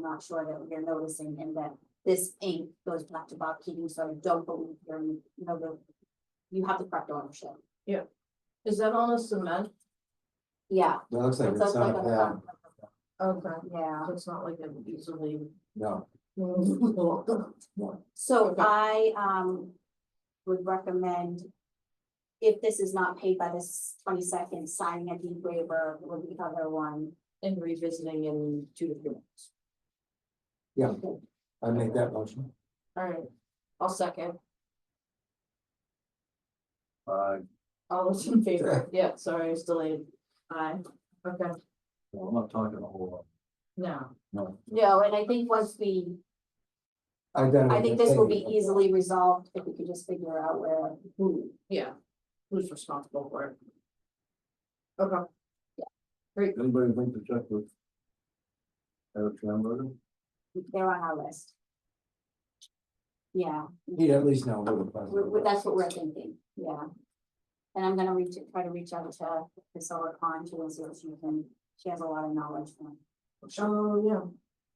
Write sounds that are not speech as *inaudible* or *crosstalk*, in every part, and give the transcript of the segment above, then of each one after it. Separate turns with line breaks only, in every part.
not sure that you're noticing and that this ink goes back to Bob Keating, so I don't believe you're, you know, the. You have the correct ownership.
Is that on a cement?
Yeah.
That looks like
It looks
it's
like
not
a
a pad,
front-
Okay.
Yeah,
It's not like an easily.
no,
so
Mm-hmm. Okay.
I, um, would recommend. If this is not paid by this twenty-second, signing a deed waiver with the other one.
And revisiting in two to three months.
I make that motion.
All right, I'll second.
Uh,
All those in favor? Yeah, sorry, I was delayed. Aye. Okay,
no, I'm not talking a whole
now,
lot, no.
No, and I think once we,
I've done it
I think this will be
with-
easily resolved if we could just figure out where.
who, yeah, who's responsible for it? Okay,
Anybody think to check with? Eric Schamberger?
they're on our list. Yeah,
He'd at least know who the
we-
president.
we-
was.
that's what we're thinking, yeah. And I'm gonna reach, try to reach out to Priscilla Khan too, and see if she can, she has a lot of knowledge on,
oh, yeah,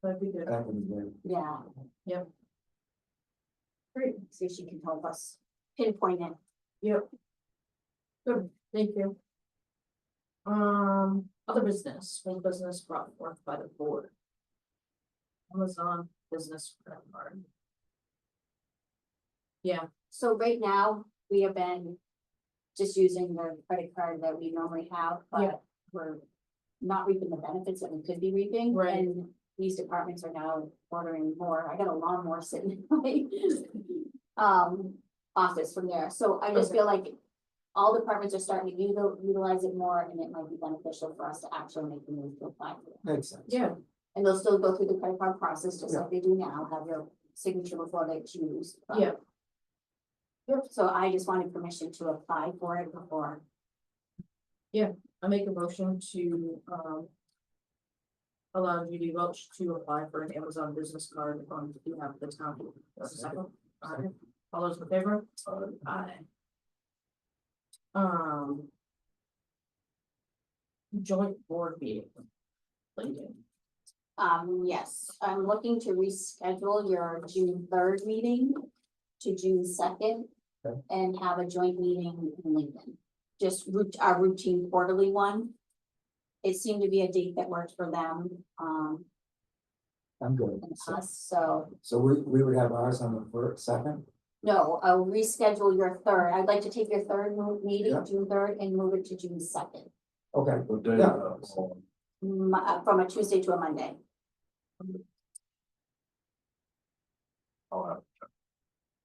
that'd be good.
Back in the day.
yeah.
Yep.
Great, see if she can help us pinpoint it.
Yep. Good, thank you. Um, other business, full business brought forth by the board. Amazon business credit card.
So right now, we have been just using the credit card that we normally have,
Yeah.
but we're not reaping the benefits that we could be reaping.
Right.
And these departments are now ordering more. I got a lawnmower sitting in my *laughs* um office from there. So I just
Okay.
feel like all departments are starting to util- utilize it more and it might be beneficial for us to actually make the move to apply for it.
Makes sense.
Yeah,
And they'll still go through the credit card process, just
Yeah.
like they do now, have your signature before they choose. but-
yeah,
so I just wanted permission to apply for it before.
I make a motion to, um. Allow Judy Welch to apply for an Amazon business card on behalf of the town. That's a Second, all right, all those in favor?
Uh,
Aye. Um. Joint board meeting. Lincoln.
Um, yes, I'm looking to reschedule your June third meeting to June second.
Okay.
And have a joint meeting in Lincoln, just root, our routine quarterly one. It seemed to be a date that worked for them, um,
I'm good.
and
So-
us, so,
So we, we would have ours on the first, second,
no, I'll reschedule your third. I'd like to take your third mo- meeting,
Yeah.
June third, and move it to June second. uh,
okay,
What day?
Yeah.
is that?
from a Tuesday to a Monday.
I'll have-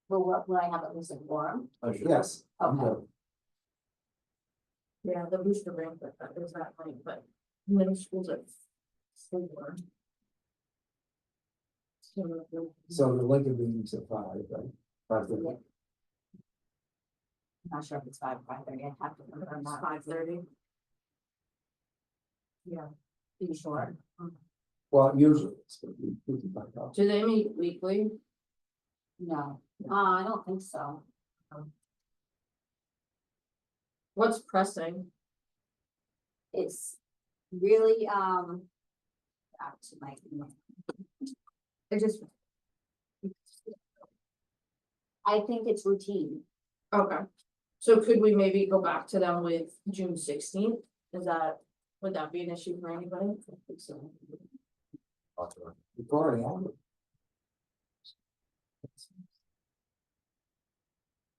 Will, what- will I have at least a forum?
I should-
yes, I'm
Okay.
good.
Yeah, the booster ramp, but that is that late, but middle school's at four. So,
So the Lincoln meeting's at five, right? Five thirty.
Yeah. I'm not sure if it's five, five thirty, I'd have to confirm that,
Five thirty. Yeah,
be sure.
Well, usually, it's gonna be- we can back up.
do they meet weekly?
No, uh, I don't think so.
What's pressing?
It's really, um. Back to my, email.
I just.
I think it's routine.
Okay, so could we maybe go back to them with June sixteenth? Is that, would that be an issue for anybody? I think so.
I'll do it.
We've already had it.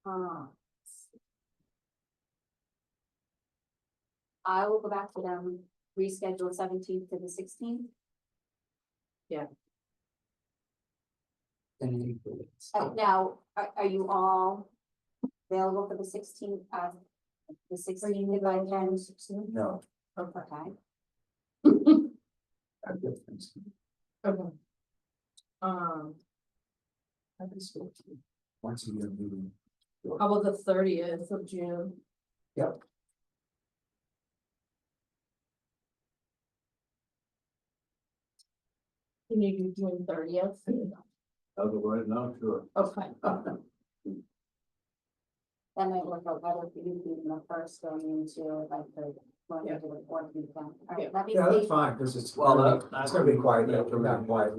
Uh, I will go back to them, reschedule seventeenth to the sixteenth.
And you do it.
Uh, Now, are, are you all available for the sixteenth, uh, the sixteenth if I can?
No,
Okay.
I get things.
Okay. Um,
I can still do it. Once a year meeting.
how about the thirtieth of June?
Yep.
Can you do June thirtieth?
Otherwise, not sure.
Okay,
That might work out better for you being the first going into like the, going into the fourth weekend. All right, let me
*laughs* Yeah,
see.
that's fine, because it's,
Well,
well,
that-
it's gonna be quiet, yeah, it's gonna be quiet.